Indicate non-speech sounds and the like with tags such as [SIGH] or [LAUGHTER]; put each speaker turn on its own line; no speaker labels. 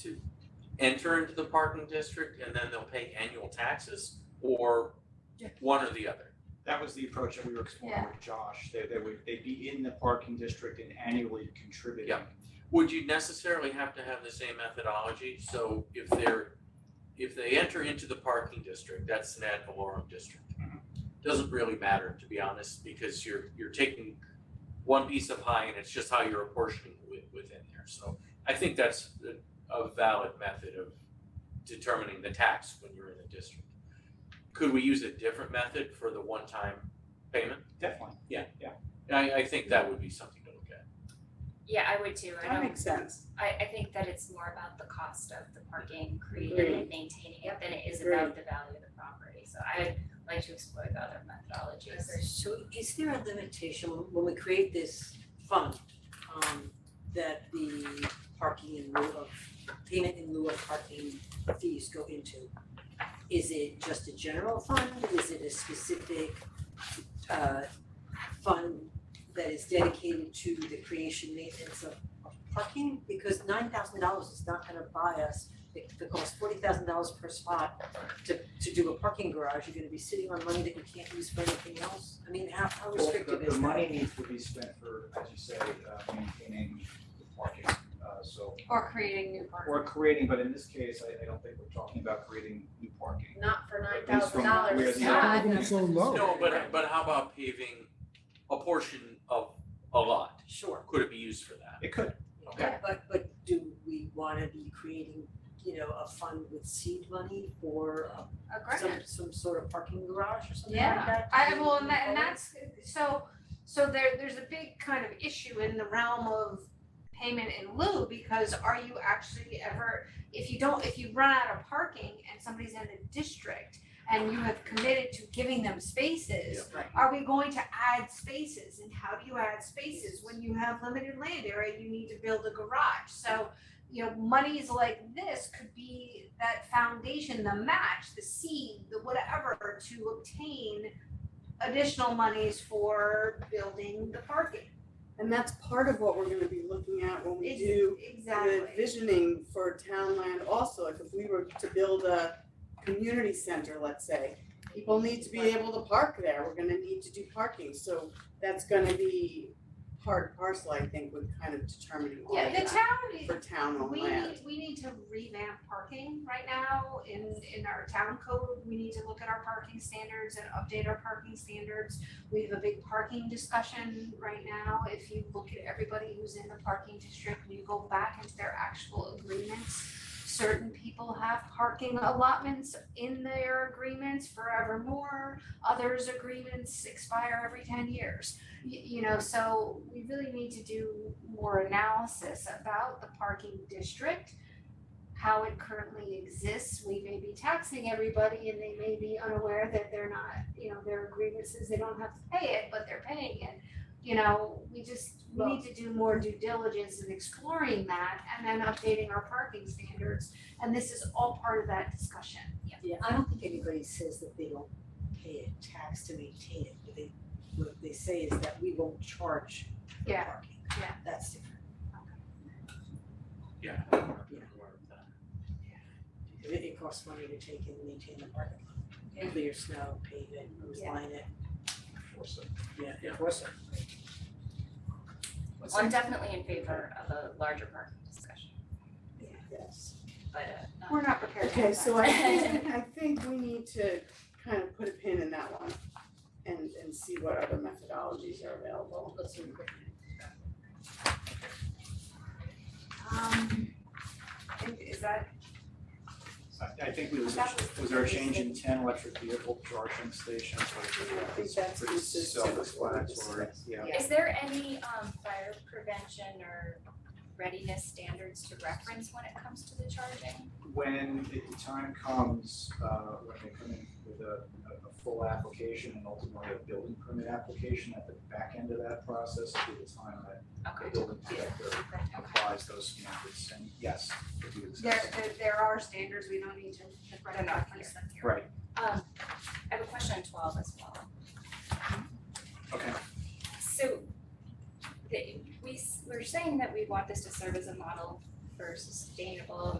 to enter into the parking district and then they'll pay annual taxes or
Yeah.
one or the other?
That was the approach that we were exploring with Josh, that they would, they'd be in the parking district and annually contributing.
Yeah. Would you necessarily have to have the same methodology? So if they're, if they enter into the parking district, that's an ad valorem district. Doesn't really matter, to be honest, because you're, you're taking one piece of pie and it's just how you're apportioning wi- within there. So I think that's a- a valid method of determining the tax when you're in the district. Could we use a different method for the one-time payment?
Definitely.
I, I think that would be something to look at.
Yeah, I would too. I
That
don't,
makes sense.
I, I think that it's more about the cost of the parking created and maintaining it than it is about the value of the property. So I would like to explore the other methodologies.
So is there a limitation when- when we create this fund, um, that the parking in lieu of, payment in lieu of parking fees go into? Is it just a general fund? Is it a specific, uh, fund that is dedicated to the creation maintenance of, of parking? Because nine thousand dollars is not gonna buy us, it, it costs forty thousand dollars per spot to to do a parking garage, you're gonna be sitting on money that you can't use for anything else? I mean, how how restrictive
The
is that?
money needs to be spent for, as you say, uh, maintaining the parking, uh, so,
Or creating new parking.
or creating, but in this case, I, I don't think we're talking about creating new parking.
Not for nine
At least
thousand
from
dollars,
where the
yeah.
applicant
so low.
No, but but how about paving a portion of a lot?
Sure,
Could it be used for that?
It could,
Okay,
but but but do we wanna be creating, you know, a fund with seed money for uh,
A grant.
some some sort of parking garage or something
Yeah.
like that? to
I well,
move
and that, and
forward?
that's, so, so there, there's a big kind of issue in the realm of payment in lieu, because are you actually ever, if you don't, if you run out of parking and somebody's in the district and you have committed to giving them spaces,
Right.
are we going to add spaces, and how do you add spaces when you have limited land area, you need to build a garage, so, you know, monies like this could be that foundation, the match, the seed, the whatever, to obtain additional monies for building the parking.
And that's part of what we're gonna be looking at when we do
Exactly.
the visioning for town land also, like if we were to build a community center, let's say. People need to be able to park there, we're gonna need to do parking, so that's gonna be part and parcel, I think, with kind of determining all of
Yeah, the
that
town,
for town on
We
land.
need, we need to revamp parking right now in, in our town code, we need to look at our parking standards and update our parking standards. We have a big parking discussion right now, if you look at everybody who's in the parking district, when you go back into their actual agreements. Certain people have parking allotments in their agreements forevermore, others' agreements expire every ten years y- you know, so we really need to do more analysis about the parking district, how it currently exists. We may be taxing everybody and they may be unaware that they're not, you know, their agreement says they don't have to pay it, but they're paying it. You know, we just, we need to do more due diligence in exploring that and then updating our parking standards. And this is all part of that discussion.
Yeah, I don't think anybody says that they don't pay a tax to maintain it, but they, what they say is that we won't charge for
Yeah,
parking.
yeah.
That's different,
yeah.
because it, it costs money to take and maintain the parking lot.
Yeah.
Clear snow, pave it, who's
Yeah.
line it,
so.
yeah,
Yeah.
of course.
Well, I'm definitely in favor of a larger parking discussion,
Yes.
but uh, not-
We're not prepared to have
Okay,
that.
so I
[LAUGHS]
think, I think we need to kind of put a pin in that one and, and see what other methodologies are available.
Um, and is that
I, I think we was, was there a change in ten electric vehicle charging stations,
I
like,
think that's
pretty
consistent with what we
self-explanatory,
discussed.
yeah.
Is there any um fire prevention or readiness standards to reference when it comes to the charging?
when the time comes, uh, when they come in with a, a, a full application and ultimately a building permit application at the back end of that process, will be the time that the
Okay,
building inspector applies those standards, and yes, it do exist.
There, there, there are standards, we don't need to.
they're not here.
Right,
Um, I have a question on twelve as well.
okay,
So the, we, s- we're saying that we want this to serve as a model for sustainable